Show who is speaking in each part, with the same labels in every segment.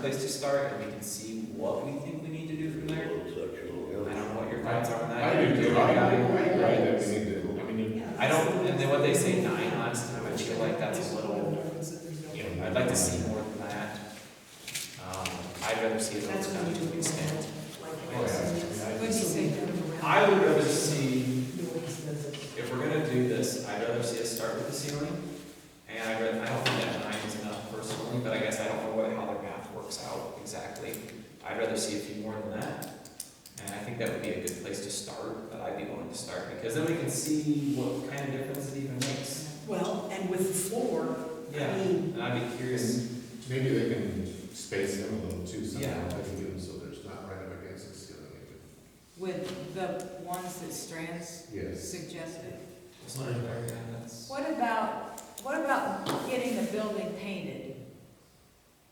Speaker 1: place to start, and we can see what we think we need to do from there. I don't know what your thoughts are on that.
Speaker 2: I do too, I, I agree that we need to, I mean,
Speaker 1: I don't, and then what they say nine last time, I feel like that's a little, you know, I'd like to see more than that. Um, I'd rather see it
Speaker 3: That's
Speaker 1: over
Speaker 3: what
Speaker 1: time
Speaker 3: we
Speaker 1: to
Speaker 3: do.
Speaker 1: an extent. Oh,
Speaker 3: What do you say?
Speaker 1: I would rather see, if we're gonna do this, I'd rather see us start with the ceiling. And I read, I don't think that nine is enough personally, but I guess I don't know what, how their math works out exactly. I'd rather see a few more than that. And I think that would be a good place to start, but I'd be willing to start, because then we can see what kind of difference it even makes.
Speaker 3: Well, and with the floor,
Speaker 1: Yeah, and I'd be curious,
Speaker 2: maybe they can space them a little too somehow,
Speaker 1: Yeah.
Speaker 2: they can get them so there's not right up against the ceiling.
Speaker 4: With the ones that Strands
Speaker 2: Yes.
Speaker 4: suggested.
Speaker 1: it's not very, yeah, that's,
Speaker 4: What about, what about getting the building painted?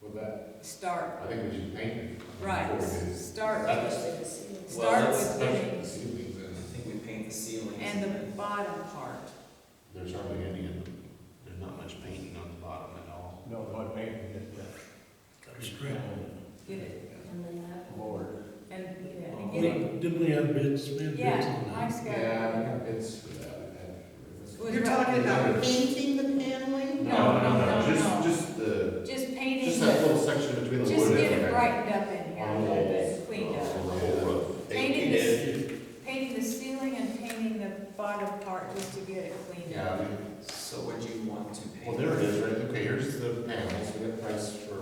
Speaker 2: With that,
Speaker 4: Start,
Speaker 2: I think we should paint it.
Speaker 4: right,
Speaker 2: Before it is
Speaker 4: start, with- start
Speaker 1: that's-
Speaker 4: with
Speaker 2: the
Speaker 4: getting,
Speaker 2: ceiling, then
Speaker 1: I think we paint the ceilings.
Speaker 4: and the
Speaker 1: then-
Speaker 4: bottom part.
Speaker 2: there's hardly any in them.
Speaker 5: There's not much painting on the bottom at all.
Speaker 6: No, not painting
Speaker 4: Get it,
Speaker 6: it, Lord.
Speaker 4: and, yeah,
Speaker 1: Um,
Speaker 4: and get it,
Speaker 5: Didn't we have bids, we had bids
Speaker 4: yeah,
Speaker 5: on that?
Speaker 4: Mike's got it.
Speaker 2: Yeah, it's for that. I
Speaker 4: Was
Speaker 2: had-
Speaker 4: right.
Speaker 3: you're talking about painting the paneling?
Speaker 4: No, no, no,
Speaker 2: Just,
Speaker 4: no.
Speaker 2: just the,
Speaker 4: Just
Speaker 2: just
Speaker 4: painting,
Speaker 2: that
Speaker 4: the-
Speaker 2: little section between the wood Oh. and.
Speaker 4: just get
Speaker 2: the-
Speaker 4: it brightened up in here, a
Speaker 2: On the
Speaker 4: little
Speaker 2: walls.
Speaker 4: bit, cleaned up.
Speaker 2: On the whole roof.
Speaker 4: Painting the, painting the ceiling and painting the bottom part just to get it cleaned
Speaker 2: Yeah,
Speaker 4: up.
Speaker 2: I mean,
Speaker 1: So would you want to paint?
Speaker 2: Well, there it is, right, okay, here's the panels, we got price for,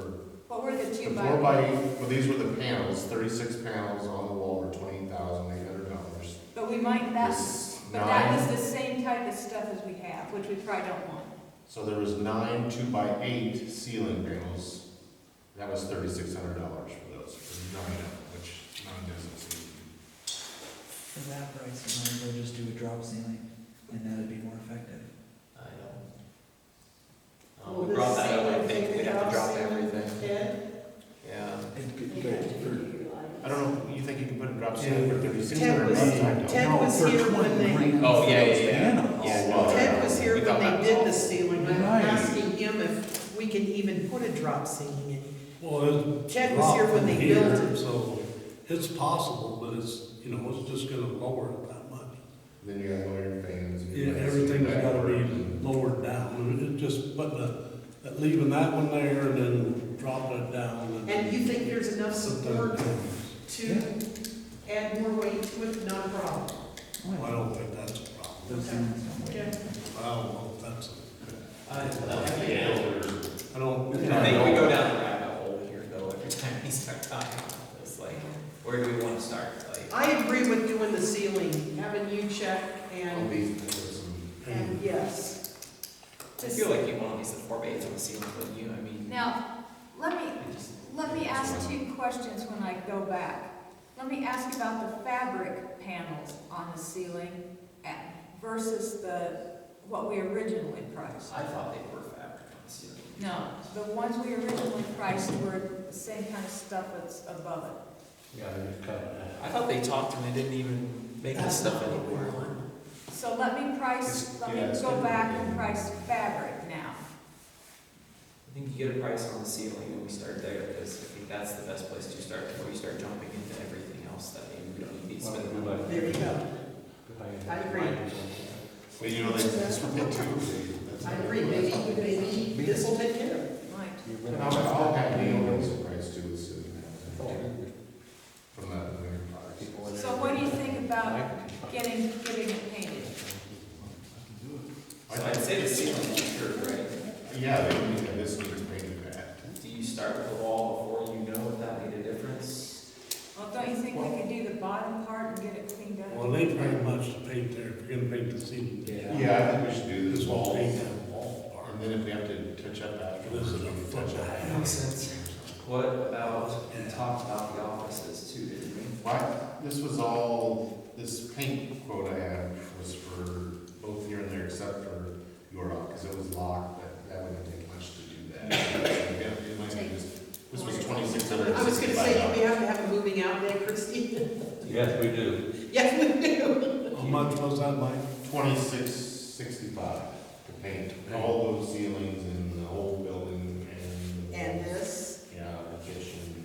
Speaker 4: What were the
Speaker 2: the
Speaker 4: two by?
Speaker 2: four by, well, these were the panels, thirty-six panels on the wall were twenty thousand eight hundred dollars.
Speaker 4: But we might, that's,
Speaker 2: This
Speaker 4: but that
Speaker 2: nine-
Speaker 4: was the same type of stuff as we have, which we probably don't want.
Speaker 2: So there was nine two by eight ceiling panels, that was thirty-six hundred dollars for those, for nine of them, which nine doesn't seem.
Speaker 7: For that price, you might as well just do a drop ceiling, and that'd be more effective.
Speaker 1: I don't. Um,
Speaker 3: Well,
Speaker 1: we
Speaker 3: the
Speaker 1: brought that up, I
Speaker 3: ceiling
Speaker 1: think,
Speaker 3: thing
Speaker 1: we'd have to
Speaker 3: about
Speaker 1: drop
Speaker 3: ceiling
Speaker 1: everything,
Speaker 3: Ted?
Speaker 1: yeah.
Speaker 2: I don't know, you think you can put a drop ceiling for thirty-six hundred
Speaker 3: Ted was-
Speaker 2: dollars?
Speaker 3: Ted was
Speaker 7: No, for
Speaker 3: here when
Speaker 7: 20
Speaker 3: they-
Speaker 7: grand
Speaker 1: Oh, yeah,
Speaker 7: for those
Speaker 1: yeah, yeah.
Speaker 7: panels.
Speaker 1: Yeah.
Speaker 3: Ted was here
Speaker 1: We
Speaker 3: when
Speaker 1: thought that
Speaker 3: they
Speaker 1: was
Speaker 3: did the
Speaker 1: awful.
Speaker 3: ceiling, I'm
Speaker 7: Right.
Speaker 3: asking him if we can even put a drop ceiling
Speaker 5: Well,
Speaker 3: in.
Speaker 5: it's.
Speaker 3: Ted was here when they
Speaker 5: here,
Speaker 3: built it.
Speaker 5: So it's possible, but it's, you know, it's just gonna lower it that much.
Speaker 2: Then you gotta lower your fans.
Speaker 5: Yeah, Everything's gotta be lowered down, and it's just putting a, that- leaving that one there and then dropping it down.
Speaker 3: And you think there's enough support to
Speaker 7: Yeah.
Speaker 3: add more weight to it, not a problem?
Speaker 5: I don't think that's a problem.
Speaker 7: Those ceilings don't work.
Speaker 3: Okay.
Speaker 5: I don't know if that's,
Speaker 1: I
Speaker 5: a- I don't.
Speaker 1: think we go down the rabbit hole here though, every time we start talking about this, like, where do we wanna start, like?
Speaker 3: I agree with doing the ceiling, having you check
Speaker 2: All
Speaker 3: and,
Speaker 2: these, there's some.
Speaker 3: and yes.
Speaker 1: I feel like you want at least the four by eights on the ceiling, wouldn't you, I mean,
Speaker 4: Now, let me,
Speaker 1: I just.
Speaker 4: let me ask two questions when I go back. Let me ask about the fabric panels on the ceiling at- versus the, what we originally priced.
Speaker 1: I thought they were fabric on the ceiling.
Speaker 4: No, the ones we originally priced were the same kind of stuff that's above it.
Speaker 2: Yeah, they're cut in half.
Speaker 1: I thought they talked and they didn't even make this stuff anymore.
Speaker 4: So let me price,
Speaker 2: It's-
Speaker 4: let
Speaker 2: yeah,
Speaker 4: me
Speaker 2: it's
Speaker 4: go
Speaker 2: different.
Speaker 4: back and price fabric now.
Speaker 1: I think you get a price on the ceiling and we start there, because I think that's the best place to start, before you start jumping into everything else that maybe we don't need to spend. the money.
Speaker 3: There you go. I agree.
Speaker 2: Well, you know, that's, that's what they do. That's
Speaker 3: I
Speaker 2: what
Speaker 3: agree,
Speaker 2: they do.
Speaker 3: maybe, maybe this will take care of it.
Speaker 4: Right.
Speaker 2: And I'll, I'll have Neil raise the price too, it's, uh, from that winter product.
Speaker 4: So what do you think about getting, getting it painted?
Speaker 1: So I'd say the ceiling, sure, right?
Speaker 2: Yeah, they can get this needs painted back.
Speaker 1: Do you start with the wall before you know if that made a difference?
Speaker 4: Well, don't you think we could do the bottom part and get it cleaned up?
Speaker 5: Well, they pretty much paint there, if you're gonna paint the ceiling.
Speaker 2: Yeah, I think we should do this
Speaker 5: This won't
Speaker 2: wall,
Speaker 5: paint
Speaker 2: and
Speaker 5: that wall part.
Speaker 2: then if we have to touch up after,
Speaker 5: This is a
Speaker 2: we
Speaker 5: foot
Speaker 2: touch
Speaker 5: and a
Speaker 2: up.
Speaker 5: half.
Speaker 1: Makes sense. What about, we talked about the offices too, didn't we?
Speaker 2: Why, this was all, this paint quote I had was for both here and there except for Yorock, because it was locked, but that wouldn't take much to do that. Yeah, it might be just- This was twenty-six hundred.
Speaker 3: I was gonna say, do we have to have a moving out day, Christine?
Speaker 6: Yes, we do.
Speaker 3: Yes, we do.
Speaker 5: How much was that, Mike?
Speaker 2: Twenty-six sixty-five to paint all those ceilings in the whole building and. the
Speaker 3: And
Speaker 2: walls.
Speaker 3: this?